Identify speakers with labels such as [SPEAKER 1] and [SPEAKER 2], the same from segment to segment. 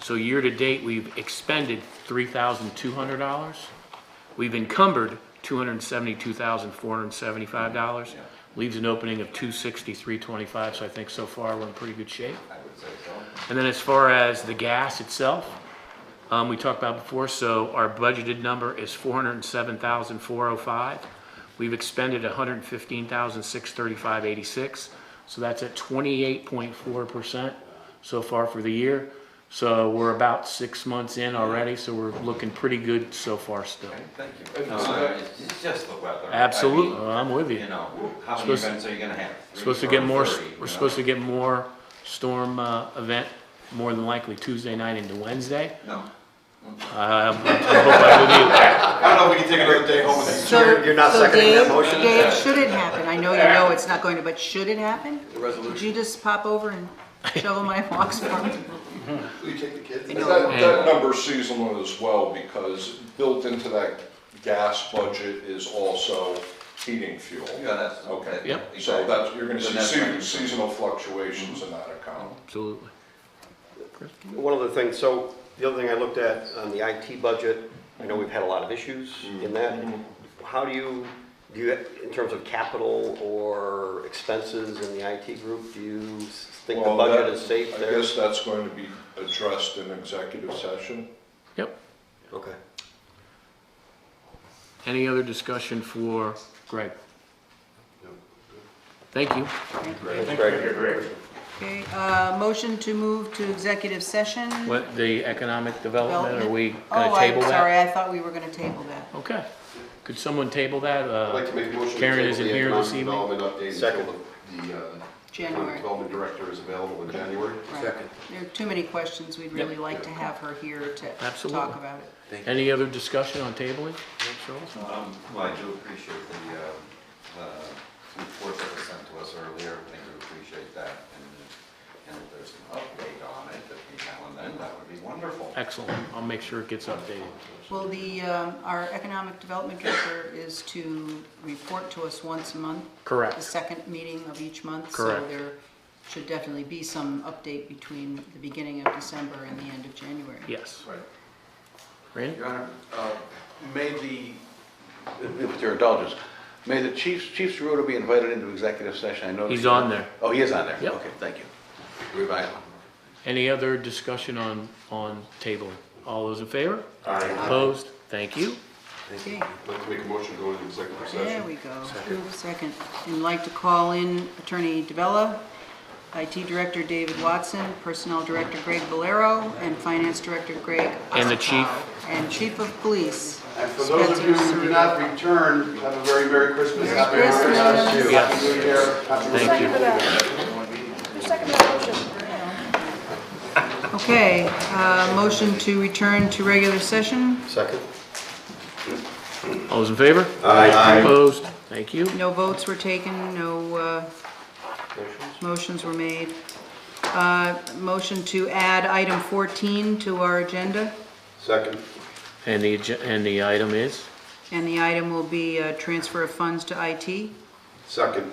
[SPEAKER 1] So year-to-date, we've expended three thousand two hundred dollars. We've encumbered two hundred and seventy-two thousand four hundred and seventy-five dollars. Leaves an opening of two sixty-three twenty-five, so I think so far we're in pretty good shape. And then as far as the gas itself, um, we talked about before, so our budgeted number is four hundred and seven thousand four oh five. We've expended a hundred and fifteen thousand six thirty-five eighty-six, so that's at twenty-eight point four percent so far for the year. So we're about six months in already, so we're looking pretty good so far still.
[SPEAKER 2] Thank you. Uh, It's it's just the weather. I
[SPEAKER 1] Absolutely,
[SPEAKER 2] mean,
[SPEAKER 1] I'm with
[SPEAKER 2] You
[SPEAKER 1] you.
[SPEAKER 2] know, how many
[SPEAKER 1] Supposed-
[SPEAKER 2] events are you gonna have?
[SPEAKER 1] Supposed to get more, we're supposed to get more storm, uh, event, more than likely Tuesday night into Wednesday.
[SPEAKER 2] No.
[SPEAKER 1] Um, I hope I'm with you.
[SPEAKER 2] I don't know, we can take another day home with
[SPEAKER 3] So-
[SPEAKER 4] You're- you're not
[SPEAKER 3] so
[SPEAKER 4] seconding that
[SPEAKER 3] Dave-
[SPEAKER 4] motion?
[SPEAKER 3] Dave, should it happen? I know you know it's not going to, but should it happen?
[SPEAKER 5] The
[SPEAKER 3] Could
[SPEAKER 5] resolution.
[SPEAKER 3] you just pop over and shovel my walks for me?
[SPEAKER 5] Will you take the kids?
[SPEAKER 6] That, that number's seasonal as well, because built into that gas budget is also heating fuel.
[SPEAKER 2] Yeah, that's.
[SPEAKER 6] Okay.
[SPEAKER 2] that-
[SPEAKER 1] Yep.
[SPEAKER 6] So that's, you're gonna
[SPEAKER 2] Then
[SPEAKER 6] see
[SPEAKER 2] that's
[SPEAKER 6] se-
[SPEAKER 2] right.
[SPEAKER 6] seasonal fluctuations in that account.
[SPEAKER 1] Absolutely.
[SPEAKER 4] One other thing, so the other thing I looked at on the IT budget, I know we've had a lot of issues in that. How do you, do you, in terms of capital or expenses in the IT group, do you s- think the
[SPEAKER 6] Well,
[SPEAKER 4] budget
[SPEAKER 6] that-
[SPEAKER 4] is safe
[SPEAKER 6] I
[SPEAKER 4] there?
[SPEAKER 6] guess that's going to be addressed in executive session.
[SPEAKER 1] Yep.
[SPEAKER 4] Okay.
[SPEAKER 1] Any other discussion for Greg? Thank you.
[SPEAKER 4] Thanks, Greg.
[SPEAKER 3] Okay, uh, motion to move to executive session.
[SPEAKER 1] What, the economic development,
[SPEAKER 3] Development.
[SPEAKER 1] are we
[SPEAKER 3] Oh,
[SPEAKER 1] gonna
[SPEAKER 3] I'm
[SPEAKER 1] table
[SPEAKER 3] Sorry,
[SPEAKER 1] that?
[SPEAKER 3] I thought we were gonna table that.
[SPEAKER 1] Okay. Could someone table that?
[SPEAKER 5] I'd like
[SPEAKER 1] Uh,
[SPEAKER 5] to make a motion. to
[SPEAKER 1] Karen
[SPEAKER 5] table
[SPEAKER 1] isn't
[SPEAKER 5] the
[SPEAKER 1] here this
[SPEAKER 5] economic
[SPEAKER 1] evening.
[SPEAKER 5] Development update until
[SPEAKER 4] Second.
[SPEAKER 5] the, the, uh,
[SPEAKER 3] January.
[SPEAKER 5] Development director is available in January.
[SPEAKER 3] Right. There are too many questions. We'd really like to have her here to
[SPEAKER 1] Absolutely.
[SPEAKER 3] talk about it.
[SPEAKER 1] Any other discussion on tabling?
[SPEAKER 2] Um, Well, I do appreciate the, um, uh, report that was sent to us earlier, I do appreciate that. and- And if there's an update on it, that we now and then, that would be wonderful.
[SPEAKER 1] Excellent. I'll make sure it gets updated.
[SPEAKER 3] Well, the, um, our economic development director is to report to us once a month.
[SPEAKER 1] Correct.
[SPEAKER 3] The second meeting of each month. So
[SPEAKER 1] Correct.
[SPEAKER 3] there should definitely be some update between the beginning of December and the end of January.
[SPEAKER 1] Yes.
[SPEAKER 5] Right.
[SPEAKER 1] Randy?
[SPEAKER 5] Your Honor, uh, may the,
[SPEAKER 7] with your indulgence, may the chief, Chief Ceruto be invited into executive session? I know
[SPEAKER 1] He's on there.
[SPEAKER 7] Oh, he is on there?
[SPEAKER 1] Yep.
[SPEAKER 7] Okay, thank you. Revise.
[SPEAKER 1] Any other discussion on, on tabling? All those in favor? Aye. Opposed? Thank you.
[SPEAKER 3] Okay,
[SPEAKER 5] I'd like to make a motion to go into executive
[SPEAKER 3] there
[SPEAKER 5] session.
[SPEAKER 3] we go. Second. And I'd like to call in Attorney DeBella, IT Director David Watson, Personnel Director Greg Valero, and Finance Director Greg
[SPEAKER 1] And the chief.
[SPEAKER 3] Ossipow, And Chief of Police.
[SPEAKER 5] And for those of you who do not return, have a very Merry Christmas. Happy
[SPEAKER 3] Merry Christmas.
[SPEAKER 5] Happy New Year. Happy New Year.
[SPEAKER 1] Thank you.
[SPEAKER 3] Okay, uh, motion to return to regular session.
[SPEAKER 4] Second?
[SPEAKER 1] All those in favor? Aye. Opposed? Thank you.
[SPEAKER 3] No votes were taken, no uh, motions were made. Uh, Motion to add item 14 to our agenda,
[SPEAKER 4] Second.
[SPEAKER 1] And the, agen- and the item is?
[SPEAKER 3] and the item will be uh, transfer of funds to IT.
[SPEAKER 4] Second.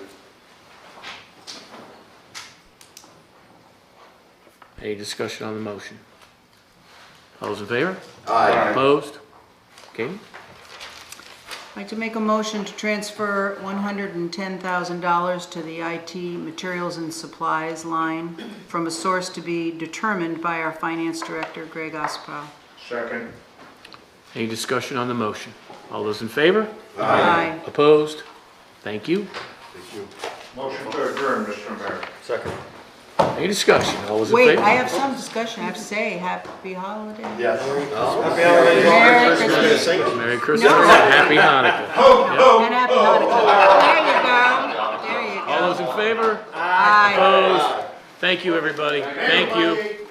[SPEAKER 1] Any discussion on the motion? All those in favor?
[SPEAKER 4] Aye.
[SPEAKER 1] Opposed? Okay,
[SPEAKER 3] I'd like to make a motion to transfer $110,000 to the IT materials and supplies line from a source to be determined by our finance director, Greg Ospow.
[SPEAKER 6] Second.
[SPEAKER 1] any discussion on the motion? All those in favor?
[SPEAKER 3] Aye.
[SPEAKER 1] Opposed? Thank you.
[SPEAKER 6] Motion to adjourn, Mr. Mayor.
[SPEAKER 4] Second.
[SPEAKER 1] Any discussion? All those in favor?
[SPEAKER 3] Wait, I have some discussion, I have to say, happy holiday.
[SPEAKER 5] Yes.
[SPEAKER 3] Oh. Merry Christmas.
[SPEAKER 1] Merry Christmas and Happy Hanukkah.
[SPEAKER 3] And happy Hanukkah. There you go, there you
[SPEAKER 1] All
[SPEAKER 3] go.
[SPEAKER 1] those in favor?
[SPEAKER 3] Aye.
[SPEAKER 1] Opposed? Thank you, everybody. Thank you.